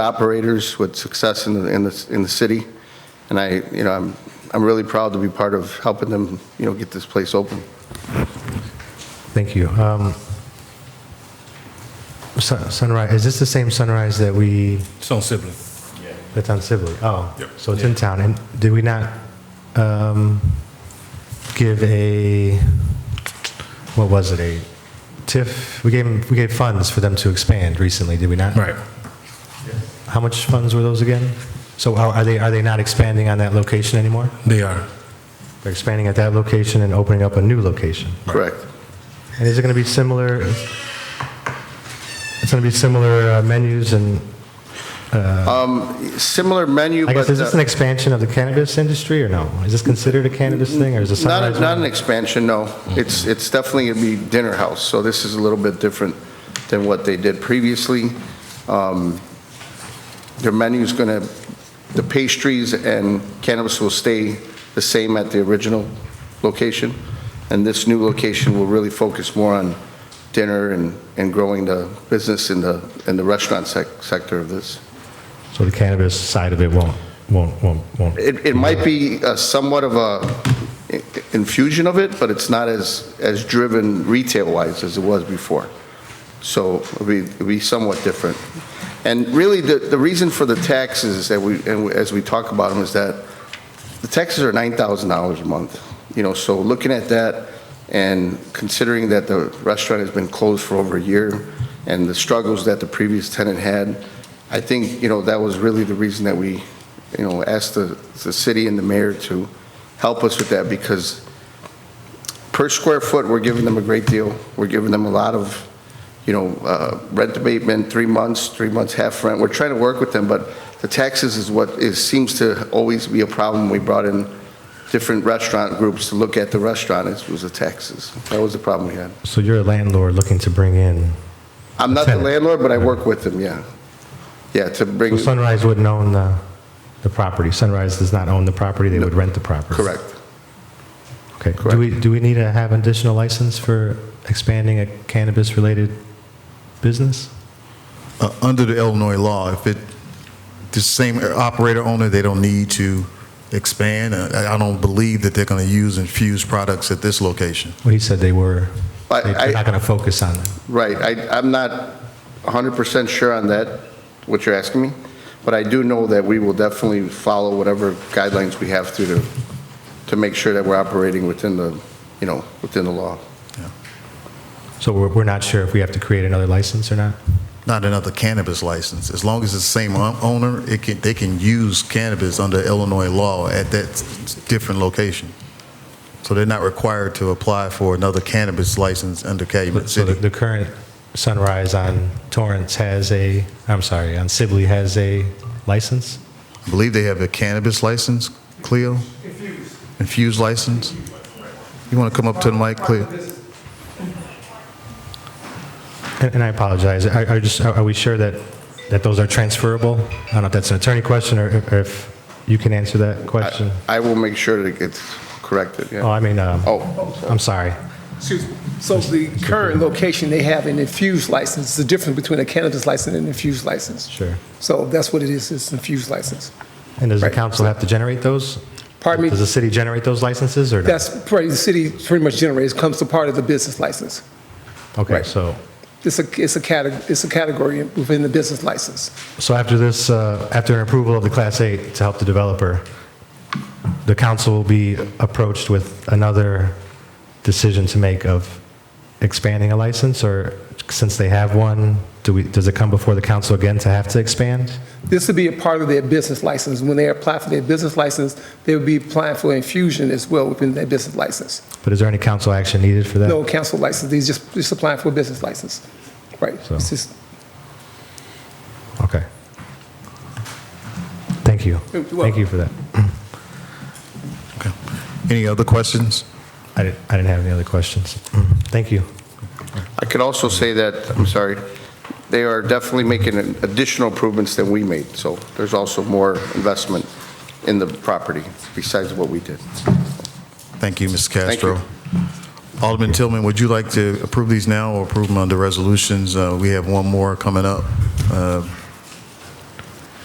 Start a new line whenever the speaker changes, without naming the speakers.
operators with success in the, in the, in the city. And I, you know, I'm, I'm really proud to be part of helping them, you know, get this place open.
Thank you. Um, Sun- Sunrise, is this the same Sunrise that we,
It's on Sibling.
that's on Sibley? Oh,
Yep.
so it's in town, and did we not um, give a, what was it, a TIF? We gave, 'em- we gave funds for them to expand recently, did we not?
Right.
How much funds were those again? So are are they, are they not expanding on that location anymore?
They are.
They're expanding at that location and opening up a new location?
Correct.
And is it going to be similar, it's going to be similar uh, menus and,
Similar menu,
I
but.
guess, is this
uh,
an expansion of the cannabis industry or no? Is this considered a cannabis thing or is it
Not,
Sunrise?
not an
one?
expansion, no. It's, it's definitely going to be dinner house, so this is a little bit different than what they did previously. Um, Their menu's going to, the pastries and cannabis will stay the same at the original location, and this new location will really focus more on dinner and, and growing the business in the, in the restaurant sec- sector of this.
So the cannabis side of it won't, won't, won't, won't.
It, it might be uh, somewhat of a i- infusion of it, but it's not as, as driven retail-wise as it was before. So it'll be, it'll be somewhat different. And really, the, the reason for the taxes that we, and we- as we talk about them, is that the taxes are $9,000 a month, you know, so looking at that and considering that the restaurant has been closed for over a year and the struggles that the previous tenant had, I think, you know, that was really the reason that we, you know, asked the, the city and the mayor to help us with that because per square foot, we're giving them a great deal. We're giving them a lot of, you know, uh, rent abatement, three months, three months half rent. We're trying to work with them, but the taxes is what is, seems to always be a problem. We brought in different restaurant groups to look at the restaurant, it was the taxes. That was the problem we had.
So you're a landlord looking to bring in,
I'm not the
Tenant.
landlord, but I work with them, yeah. Yeah, to bring,
Sunrise wouldn't own the, the property. Sunrise does not own the property, they would rent the property.
correct.
Okay.
correct.
Do we, do we need to have an additional license for expanding a cannabis-related business?
Uh, Under the Illinois law, if it, the same operator owner, they don't need to expand. Uh, I I don't believe that they're going to use infused products at this location.
Well, he said they were,
I- I-
they're not going to focus on them.
Right, I, I'm not 100% sure on that, what you're asking me, but I do know that we will definitely follow whatever guidelines we have to, to, to make sure that we're operating within the, you know, within the law.
So we're, we're not sure if we have to create another license or not?
Not another cannabis license. As long as it's the same o- owner, it can, they can use cannabis under Illinois law at that s- s- different location. So they're not required to apply for another cannabis license under Calumet
So the,
City.
the current Sunrise on Torrance has a, I'm sorry, on Sibley has a license?
I believe they have a cannabis license, Cleo? Infused. Infused license? You want to come up to the mic, Cleo?
And, and I apologize, are, are just, are are we sure that, that those are transferable? I don't know if that's an attorney question or if, or if you can answer that question.
I will make sure that it gets corrected,
Oh,
yeah.
I mean, um,
Oh.
I'm sorry.
Excuse me. So the current location, they have an infused license. It's The difference between a cannabis license and an infused license.
Sure.
So that's what it is, it's infused license.
And does the
Right.
council have to generate those?
Pardon me?
Does the city generate those licenses or not?
That's pretty, the city pretty much generates, comes to part of the business license.
Okay,
right.
so,
It's a, it's a category, it's a category within the business license.
so after this, uh, after an approval of the Class 8 to help the developer, the council will be approached with another decision to make of expanding a license, or since they have one, do we, does it come before the council again to have to expand?
This would be a part of their business license. When they apply for their business license, they would be applying for infusion as well within their business license.
But is there any council action needed for that?
No council license, these just, just applying for a business license. Right.
So-
It's just-
Okay. Thank you.
You're
Thank you for that.
Any other questions?
I didn't, I didn't have any other questions. Mm-hmm. Thank you.
I could also say that, I'm sorry, they are definitely making additional improvements than we made, so there's also more investment in the property besides what we did.
Thank you, Mr.
Thank you.
Castro. Alderman Tillman, would you like to approve these now or approve them under resolutions? Uh, We have one more coming up. Uh,